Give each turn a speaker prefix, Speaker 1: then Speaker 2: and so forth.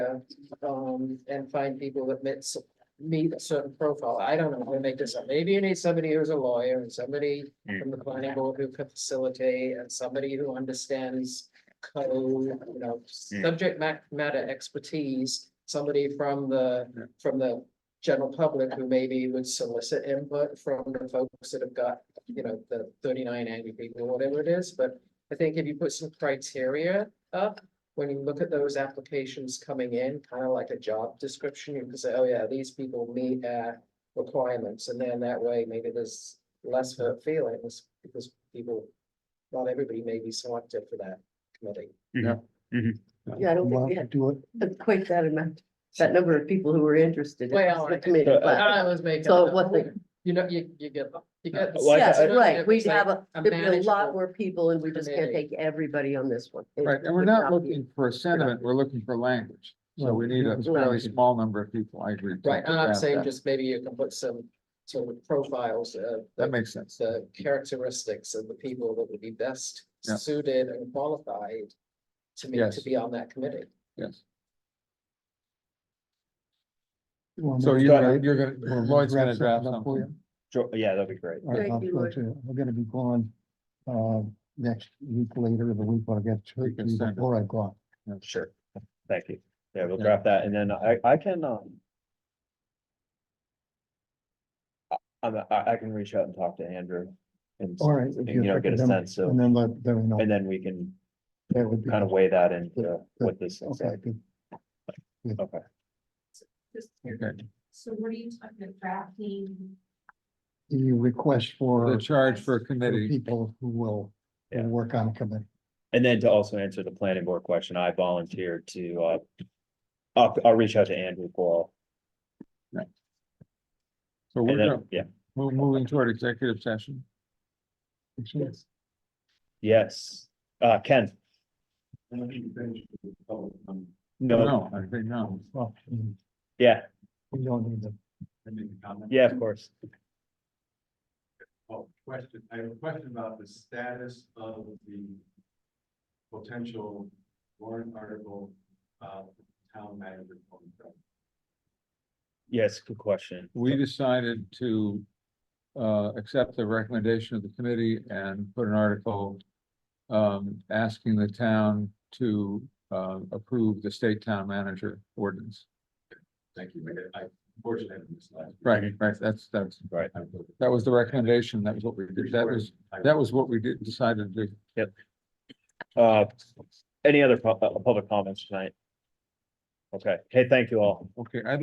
Speaker 1: um, and find people that meet, s- meet a certain profile. I don't know, we make this up. Maybe you need somebody who's a lawyer and somebody from the planning board who can facilitate and somebody who understands code, you know, subject ma- matter expertise, somebody from the, from the general public who maybe would solicit input from the folks that have got, you know, the thirty-nine angry people, whatever it is, but I think if you put some criteria up, when you look at those applications coming in, kind of like a job description, you can say, oh yeah, these people meet uh requirements, and then that way maybe there's less hurt feelings because people, not everybody may be selected for that committee.
Speaker 2: Yeah, I don't think we had But quite that amount, that number of people who were interested. in
Speaker 1: Well,
Speaker 2: the
Speaker 1: I-
Speaker 2: committee,
Speaker 3: Uh,
Speaker 1: But
Speaker 2: but-
Speaker 1: I was making.
Speaker 2: So
Speaker 1: up-
Speaker 2: what the- Uh,
Speaker 1: You know, you you get, you get.
Speaker 3: Well, I-
Speaker 2: Yeah,
Speaker 3: I-
Speaker 2: right, we have a,
Speaker 1: a
Speaker 2: there'd be a
Speaker 1: manageable-
Speaker 2: lot more people and we just can't
Speaker 1: committee.
Speaker 2: take everybody on this one. It
Speaker 4: Right, and we're
Speaker 2: would
Speaker 4: not
Speaker 2: be-
Speaker 4: looking for a sentiment, we're looking for language. So we need a fairly small number of people, I agree.
Speaker 1: Right, and I'm
Speaker 4: That-
Speaker 1: saying
Speaker 4: that-
Speaker 1: just maybe you can put some sort of profiles uh, of
Speaker 4: That
Speaker 1: the
Speaker 4: makes sense.
Speaker 1: the characteristics of the people that would be best
Speaker 4: Yeah.
Speaker 1: suited and qualified to me, to
Speaker 4: Yes.
Speaker 1: be on that committee.
Speaker 4: Yes. So
Speaker 5: So
Speaker 4: you're
Speaker 3: Got
Speaker 4: gonna, you're gonna, Lloyd's gonna
Speaker 5: Draft
Speaker 4: draft
Speaker 5: Uh-huh. something up for
Speaker 4: something.
Speaker 3: Sure, yeah, that'd be great.
Speaker 2: Thank you, Lloyd.
Speaker 5: I'm gonna be gone, uh, next week later, the week I get to,
Speaker 4: You can
Speaker 5: be
Speaker 4: send it.
Speaker 5: before I go. out.
Speaker 3: Sure. Thank you. Yeah, we'll
Speaker 4: Yeah.
Speaker 3: draft that and then I, I can, um. I- I'm, I, I can reach out and talk to Andrew and, s-
Speaker 5: All right. if
Speaker 3: and,
Speaker 5: you
Speaker 3: you know, get a
Speaker 5: recommend-
Speaker 3: sense of,
Speaker 5: And then let, them know,
Speaker 3: and then we can
Speaker 5: that would be.
Speaker 3: kind of weigh that into
Speaker 5: Good, good.
Speaker 3: what this. looks
Speaker 5: Okay,
Speaker 3: like.
Speaker 5: good.
Speaker 3: Okay.
Speaker 4: Okay.
Speaker 6: So what are you talking about drafting?
Speaker 5: The request
Speaker 4: The
Speaker 5: for
Speaker 4: charge for a
Speaker 5: for
Speaker 4: committee,
Speaker 5: people who will, who
Speaker 3: Yeah.
Speaker 5: work on a committee.
Speaker 3: And then to also answer the planning board question, I volunteered to, uh, I'll, I'll reach out to Andrew for,
Speaker 4: so we're
Speaker 3: and
Speaker 4: gonna,
Speaker 3: then, yeah,
Speaker 4: we're moving toward executive session.
Speaker 5: Yes.
Speaker 3: yes, uh, Ken. No,
Speaker 4: No, I think no.
Speaker 5: Well, mm,
Speaker 3: yeah,
Speaker 5: we don't need them.
Speaker 3: yeah, of course.
Speaker 7: Oh, question, I have a question about the status of the potential warrant article, uh, town manager. contract.
Speaker 3: Yes, good question.
Speaker 4: We decided to uh, accept the recommendation of the committee and put an article um, asking the town to uh, approve the state town manager ordinance.
Speaker 7: Thank you, I- I unfortunately haven't missed last. week.
Speaker 4: Right, right, that's, that's,
Speaker 3: Right.
Speaker 7: I will-
Speaker 4: that was the recommendation, that was what we did, that was,
Speaker 7: I-
Speaker 4: that was what we did, decided to do.
Speaker 3: Uh, any other pu- uh, public comments tonight? Okay, hey, thank you all.
Speaker 4: Okay, I